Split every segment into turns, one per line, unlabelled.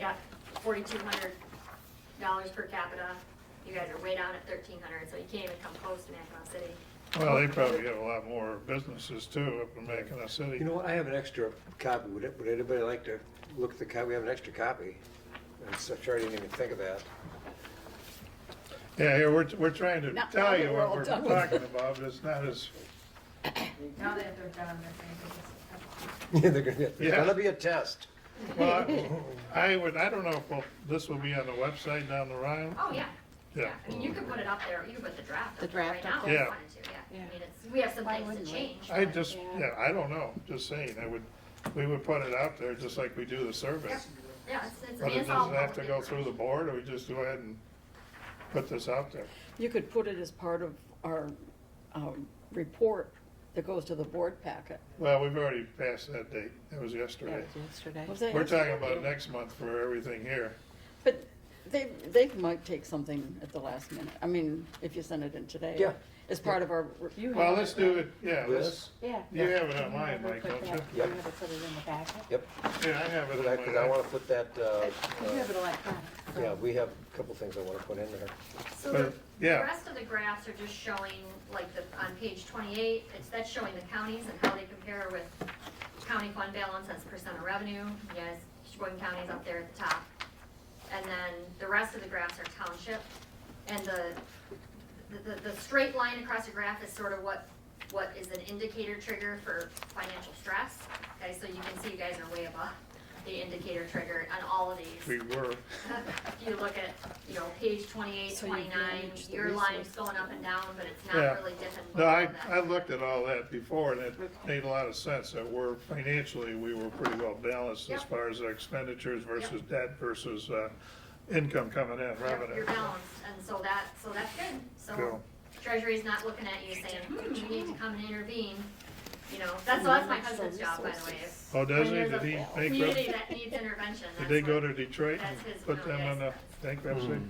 got forty-two hundred dollars per capita. You guys are way down at thirteen hundred, so you can't even come close to Mackinac City.
Well, they probably have a lot more businesses too up in Mackinac City.
You know what, I have an extra copy, would, it- would anybody like to look at the copy, we have an extra copy. I'm so sure I didn't even think of that.
Yeah, here, we're, we're trying to
Not now
tell
that
you
we're
what
all
we're
done with it.
talking about, but it's not as,
Now that they're done, they're gonna
Yeah, they're gonna, there's
Yeah.
gonna be a test.
well, I- I would, I don't know if we'll- this will be on the website down the line.
Oh, yeah.
Yeah.
I mean, you could put it up there, you could put the draft
The
up there right
draft
now
up
if
there.
you
Yeah.
wanted to, yeah.
Yeah.
I mean, it's, we have some
Why
things to
wouldn't we?
change.
I
but-
just, yeah, I don't know, just saying, I would, we would put it out there just like we do the service.
Yeah, it's, it's.
But it
it's all
doesn't have to
public
go
information.
through the board, or we just go ahead and put this out there.
You could put it as part of our um, report that goes to the board packet.
Well, we've already passed that date, that was yesterday.
yesterday.
Was that
We're talking
yesterday?
about next month for everything here.
But they, they might take something at the last minute. I mean, if you send it in today.
Yeah.
As part of our. re-
You
Well,
have
let's do it, yeah, let's,
This,
Yeah.
you have it
You
online,
never
Mike,
put
don't
that-
you?
You
Yep.
never put it in the packet?
yep,
yeah, I have it.
but I,
on
cause
my-
I wanna put that, uh,
You have
uh,
it electronic. so-
yeah, we have a couple things I wanna put in there.
So
But,
the, the
yeah.
rest of the graphs are just showing, like the, on page twenty-eight, it's, that's showing the counties and how they compare with county fund balance as percent of revenue, you guys, Sheboygan County's up there at the top. And then the rest of the graphs are township, and the, the, the- the straight line across the graph is sort of what, what is an indicator trigger for financial stress. Okay, so you can see you guys are way above the indicator trigger on all of these.
We were,
If you look at, you know, page twenty-eight,
So you've
twenty-nine,
managed the
your line's
resources.
going up and down, but it's
Yeah.
not really different.
no, I,
below that.
I looked at all that before, and it made a lot of sense, that we're financially, we were pretty well balanced as
Yep.
far as our expenditures versus debt versus, uh, income coming in,
You're- You're
revenue.
balanced, and so that, so that's good. So
Cool.
treasury's not looking at you saying, hmm, you need to come and intervene. You know, that's, so that's my husband's job, by the way. is
Oh, does he,
when
did
there's
he
a Community
bankrupt,
that needs intervention.
did they
that's
go
what-
to Detroit and
that's his
put them
money,
on the
yes.
Hmm.
bankruptcy?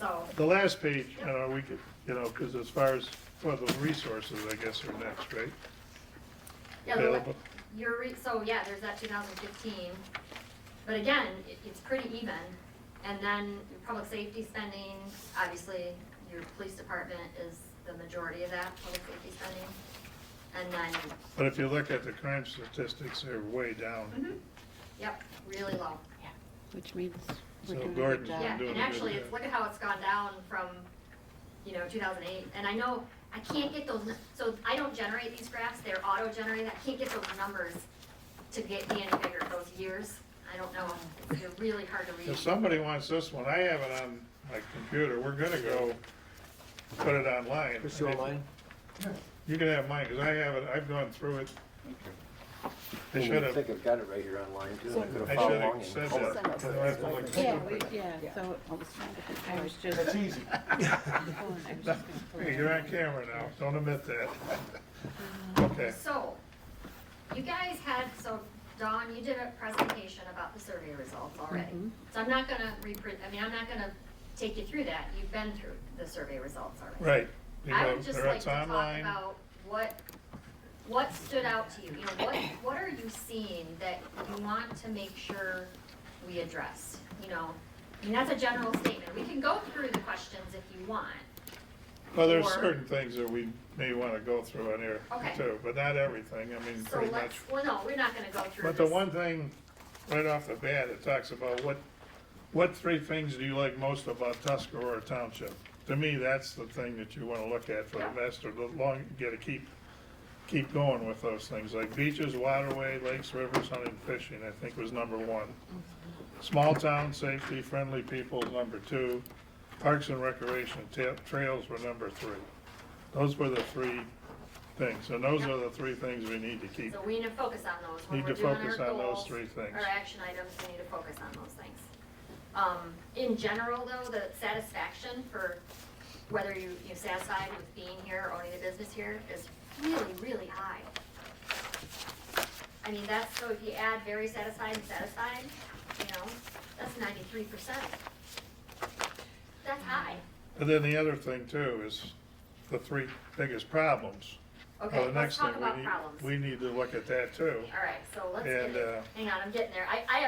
So,
The last page, you know, we could, you know, because as far as, well, the resources, I guess, are next, right?
yeah, the
Available.
Your re, so yeah, there's that two thousand fifteen, but again, it, it's pretty even. And then your public safety spending, obviously, your police department is the majority of that, public safety spending. And then,
But if you look at the crime statistics, they're way down.
yep, really low.
Which means
So
we're doing a good
Gordon's
job.
I'm
Yeah,
doing
and
a good
actually, it's,
job.
look at how it's gone down from, you know, two thousand eight, and I know, I can't get those, nu- so I don't generate these graphs, they're auto-generated, I can't get those numbers to get me any bigger, those years, I don't know, they're really hard to read.
If somebody wants this one, I have it on my computer, we're gonna go put it online.
Chris, you online?
You can have mine, because I have it, I've gone through it. I
Didn't
should
I think
have,
I've got it right here online too. I could've
I
followed
should
along
have
and-
said
Hold on.
Send us
that. I have to look
Yeah, we,
stupid.
yeah, so I was trying to think, I was just.
That's easy.
Oh, and I was just gonna pull it
Hey,
out.
you're on camera now, don't admit that. Okay,
So, you guys had, so Dawn, you did a presentation about the survey results already. So I'm not gonna reprint, I mean, I'm not gonna take you through that, you've been through the survey results already.
right. You
I
know,
would just
they're-
like
it's
to talk
online.
about what, what stood out to you, you know, what, what are you seeing that you want to make sure we address? You know, I mean, that's a general statement, we can go through the questions if you want,
Well, there's
or-
certain things that we may want to go through on here
Okay.
too, but not everything, I mean,
so
pretty much.
let's, well, no, we're not gonna go through
But
this.
the one thing, right off the bat, it talks about what, what three things do you like most about Tuscarora Township? To me, that's the thing that you want to look at for the
Yeah.
master, the long, you gotta keep, keep going with those things, like beaches, waterway, lakes, rivers, hunting, fishing, I think was number one. Small town, safety, friendly people, number two. Parks and recreation, ta- trails were number three. Those were the three things, and those are the three things we need to keep
So we need to focus on those. When
Need
we're
to
doing
focus
our
on those
goals,
three things.
Our action items, we need to focus on those things. Um, in general though, the satisfaction for whether you, you're satisfied with being here, owning a business here, is really, really high. I mean, that's, so if you add very satisfied and satisfied, you know, that's ninety-three percent. That's high.
And then the other thing too is the three biggest problems. Well,
Okay,
the
let's
next
talk
thing we
about
need
problems.
We need to look at that too.
All right, so let's get,
And, uh,
it. hang on, I'm getting there. I, I have